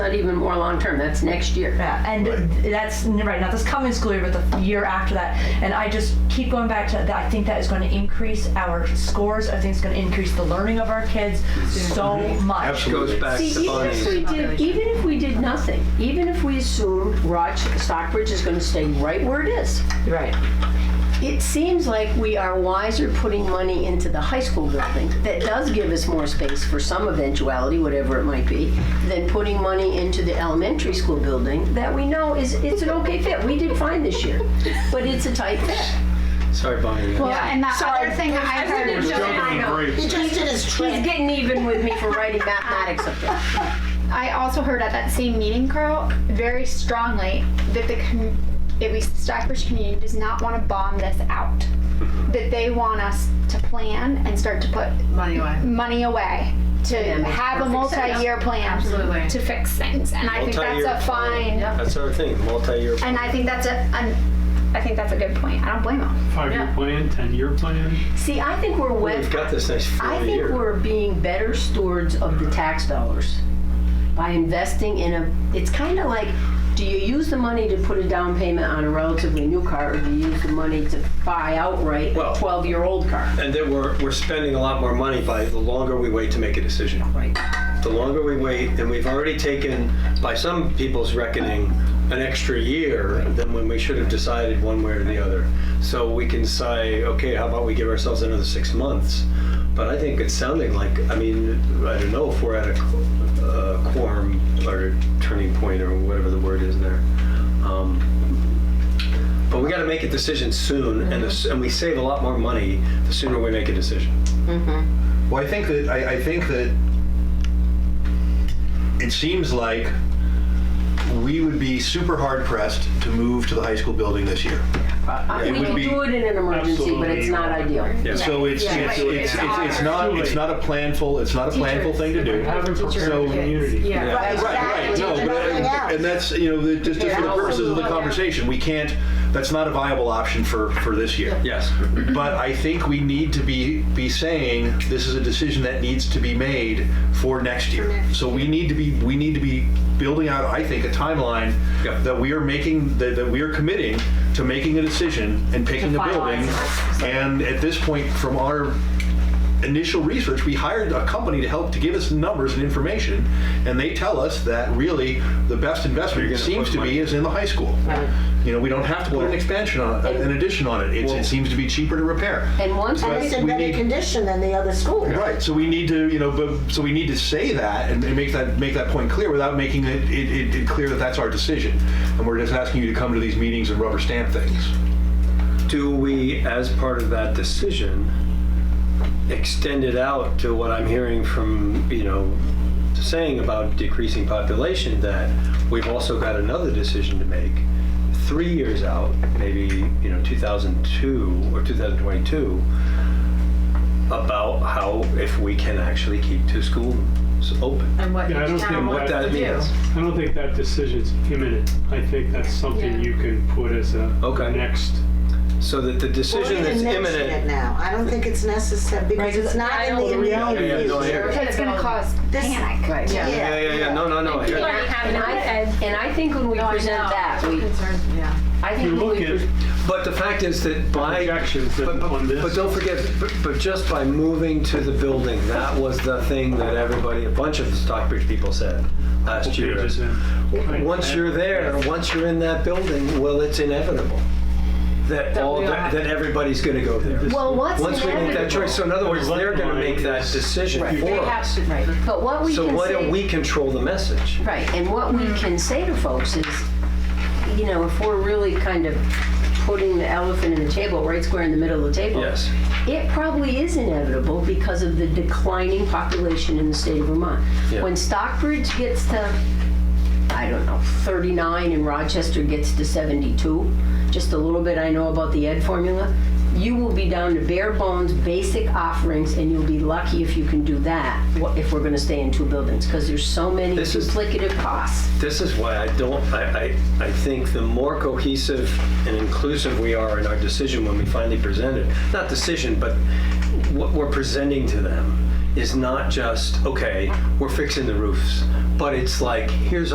Not even more long-term, that's next year. Yeah, and that's right, not this coming school year, but the year after that. And I just keep going back to that. I think that is going to increase our scores. I think it's going to increase the learning of our kids so much. Absolutely. Goes back See, to even if Bonnie's. we did, even if we did nothing, even if we assumed Roch, Stockbridge is gonna stay right where it is, Right. it seems like we are wiser putting money into the high school building that does give us more space for some eventuality, whatever it might be, than putting money into the elementary school building that we know is, it's an okay fit. We did fine this year, but it's a tight fit. Sorry, Bonnie. Well, and that other thing that I heard We're jumping the He brakes. just did his trick. He's getting even with me for writing mathematics up there. I also heard at that same meeting, Carl, very strongly that the com- at least the Stockbridge community does not want to bomb this out. That they want us to plan and start to put Money away. money away to Yeah, makes have a perfect sense. multi-year plan Absolutely. to fix things, and I think that's Multi-year a fine. Yeah. That's our thing, multi-year. And I think that's a, an, I think that's a good point. I don't blame them. Five-year plan, 10-year plan? See, I think we're wet. We've got this next four I think year. we're being better stewards of the tax dollars by investing in a. It's kind of like, do you use the money to put a down payment on a relatively new car, or do you use the money to buy outright Well- a 12-year-old car? And then we're, we're spending a lot more money by the longer we wait to make a decision. Right. The longer we wait, and we've already taken, by some people's reckoning, an extra year than when we should have decided one way or the other. So we can say, okay, how about we give ourselves another six months? But I think it's sounding like, I mean, I don't know if we're at a qu- uh, quorum or turning point or whatever the word is there. Um, But we got to make a decision soon, and the s- and we save a lot more money the sooner we make a decision. Well, I think that, I, I think that it seems like we would be super hard pressed to move to the high school building this year. Uh, it we would can be- do it in an emergency, but it's Absolutely. not ideal. So it's, Yeah. it's, Right. it's, it's, It's it's not, it's not a planful, it's not a planful thing to do. Haven't prepared So- the community. Yeah. Right, right, no, but, and- and that's, you know, the- just, just for the purposes of the conversation, we can't, that's not a viable option for, for this year. Yes. But I think we need to be, be saying, this is a decision that needs to be made for next year. So we need to be, we need to be building out, I think, a timeline Yeah. that we are making, that, that we are committing to making a decision and picking a building. And at this point, from our initial research, we hired a company to help to give us numbers and information, and they tell us that really the best investment You're gonna seems put to money- be is in the high school. You know, we don't have to put an expansion on, it, an addition on it. It's, Well- it seems to be cheaper to repair. And once But we we need- condition than the other school. Right, so we need to, you know, but, so we need to say that and and make that, make that point clear without making it, it, it- it clear that that's our decision. And we're just asking you to come to these meetings and rubber stamp things. Do we, as part of that decision, extend it out to what I'm hearing from, you know, saying about decreasing population, that we've also got another decision to make, three years out, maybe, you know, 2002 or 2022, about how, if we can actually keep two schools open. And what Yeah, I don't each town think wants that to do. means. I don't think that decision's imminent. I think that's something you can put as a Okay. next. So that the decision that's it imminent. now. I don't think it's necessary Right, because it's not I in don't the really- Yeah, yeah, immediate no, I hear future. you. It's going to cause This- panic. Right. Yeah. Yeah, yeah, yeah, no, no, no. I hear you. And I, and I think when we present that, we, Yeah. I You think when look we, at pres- But the fact is that by. projections But- but- on this. But don't forget, but- but just by moving to the building, that was the thing that everybody, a bunch of the Stockbridge people said last year. pages in. Right. Once you're there, once you're in that building, well, it's inevitable that all, that that everybody's gonna go there. well, what's Once we make that inevitable? choice, so in other words, they're gonna make that decision They for us. Right, but what we can say. So why don't we control the message? Right, and what Hmm. we can say to folks is, you know, if we're really kind of putting the elephant in the table, right square in the middle of the table. Yes. It probably is inevitable because of the declining population in the state of Vermont. Yeah. When Stockbridge gets to, I don't know, 39 and Rochester gets to 72, just a little bit I know about the ed formula, you will be down to bare bones, basic offerings, and you'll be lucky if you can do that, wha- if we're gonna stay in two buildings, because there's so many This is- duplicative costs. This is why I don't, I, I, I think the more cohesive and inclusive we are in our decision when we finally present it, not decision, but what we're presenting to them is not just, okay, we're fixing the roofs, but it's like, here's